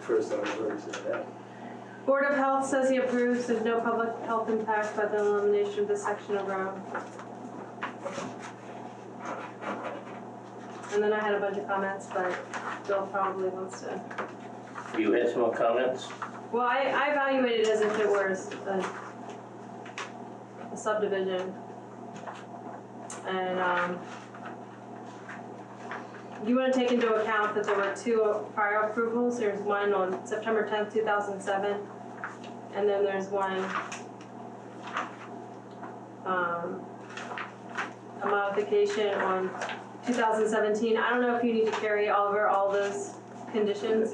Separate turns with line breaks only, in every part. first I've heard of that.
Board of Health says he approves, there's no public health impact by the elimination of this section of road. And then I had a bunch of comments, but Bill probably wants to.
You had some more comments?
Well, I, I evaluate it as if it were a, a subdivision. And, um, you wanna take into account that there were two prior approvals, there's one on September tenth, two thousand seven, and then there's one, um, a modification on two thousand seventeen, I don't know if you need to carry over all those conditions.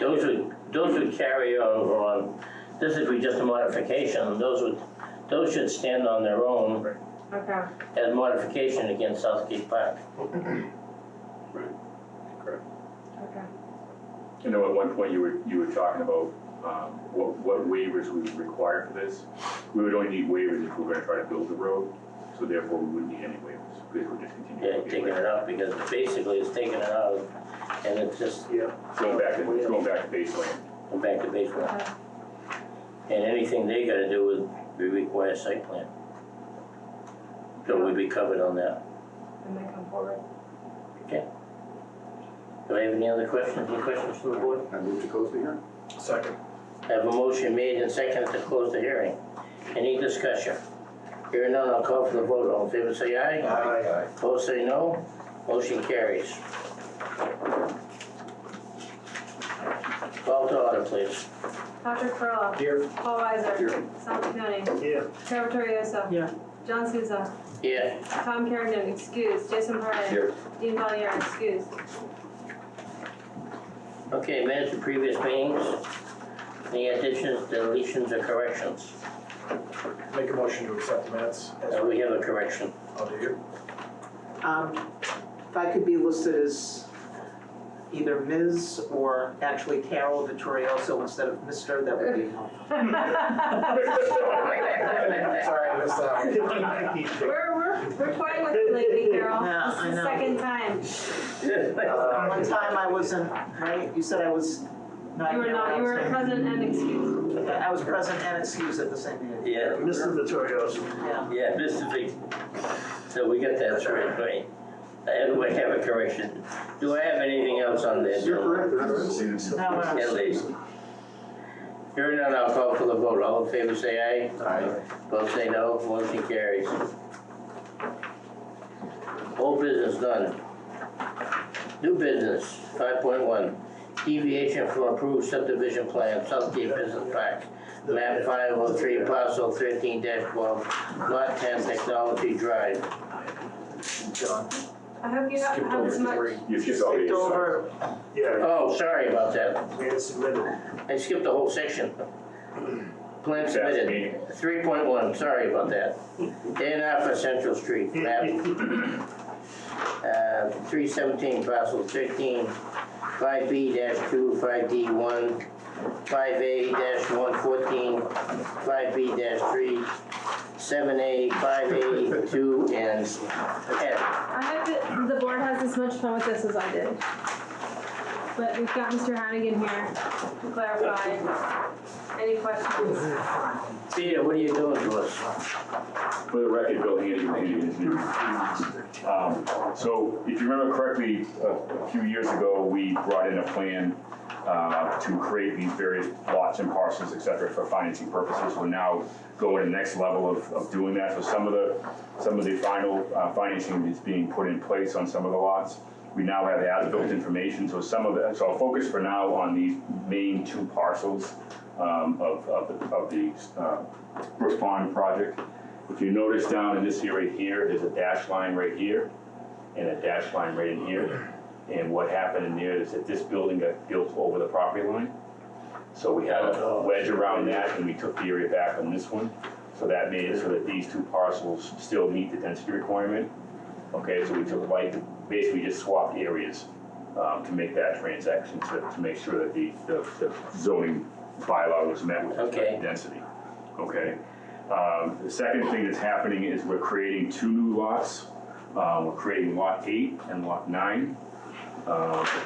Those would, those would carry over on, this would be just a modification, those would, those should stand on their own
Okay.
as modification against Southgate Park.
Okay.
I know at one point you were, you were talking about, um, what, what waivers we would require for this. We would only need waivers if we were gonna try to build the road, so therefore we wouldn't need any waivers, because we're just
Yeah,
continuing. to
taking
get
it
waivers.
out because basically it's taking it out and it's just
Yeah.
Going back to, it's going back to baseline.
going back to baseline.
Okay.
And anything they gotta do would be require site plan. So we'd be covered on that.
And they come forward.
Do I have any other questions, any questions from the board?
I move to close the hearing.
Second.
I have a motion made and seconded to close the hearing. Any discussion? Hearing none, I'll call for the vote. All in favor, say aye.
Aye.
Opposed, say no. Motion carries. Call to order, please.
Patrick Perla.
Here.
Paul Weiser.
Here.
Sal Chaconi.
Here.
Trevor Torriosa.
Yeah.
John Souza.
Yeah,
Tom Kerrigan, excused. Jason Parra.
Here.
Dean Valier, excused.
okay, minutes of previous meetings. Any additions, deletions, or corrections?
Make a motion to accept the minutes.
Uh, We have a correction.
I'll do you.
Um, If I could be listed as either Ms. or actually Carol Vittorioso instead of Mr., that would be helpful.
Sorry, I missed that
We're, we're, we're toying with you lately, Carol.
Yeah, I
This is the
know.
second time.
one.
One time I wasn't, right, you said I was not
You were
here when
not,
I
you
was
were
there.
present and excused.
Okay, I was present and excused at the same meeting,
Yeah,
Mr. Vittorioso.
yeah.
yeah, Mr. Vic. So we got that straight, right? And we have a correction. Do I have anything else on this?
You're correct, there is.
No, no,
Yeah, ladies. Hearing none, I'll call for the vote. All in favor, say aye.
Aye.
Both say no, motion carries. Old business done. New business, five point one, deviation from approved subdivision plan, Southgate Business Park. Map five oh three, parcel thirteen twelve, lot ten, Technology Drive.
John.
I hope you don't
Skipped
have
over
as
the
much.
three.
You skipped all these.
Skipped over,
Yeah,
Oh, sorry about that,
we had submitted.
I skipped the whole section. Plan
That's
submitted.
meeting.
Three point one, sorry about that. A and R for Central Street, map, uh, three seventeen parcel thirteen, five B dash two, five D one, five A dash one fourteen, five B dash three, seven A, five A two, and F.
I hope that the board has as much fun with this as I did. But we've got Mr. Hannigan here to clarify any questions.
Peter, what are you doing to us?
For the record, Bill Handy, Handy is new. Um, So if you remember correctly, a a few years ago, we brought in a plan uh, to create these various lots and parcels, et cetera, for financing purposes. We're now going to the next level of, of doing that. So some of the, some of the final uh, financing is being put in place on some of the lots. We now have as-built information, so some of the, so I'll focus for now on these main two parcels um, of, of the, of the uh, Brooks Pond project. If you notice down in this area here, there's a dash line right here and a dash line right in here. And what happened in there is that this building got built over the property line. So we had a wedge around that and we took the area back on this one. So that made it so that these two parcels still meet the density requirement. Okay, so we took like, basically just swapped areas um, to make that transaction, to, to make sure that the, the the zoning bylaw was met with respect
Okay.
to density. Okay? Um, The second thing that's happening is we're creating two new lots. Uh, We're creating Lot 8 and Lot 9. Uh,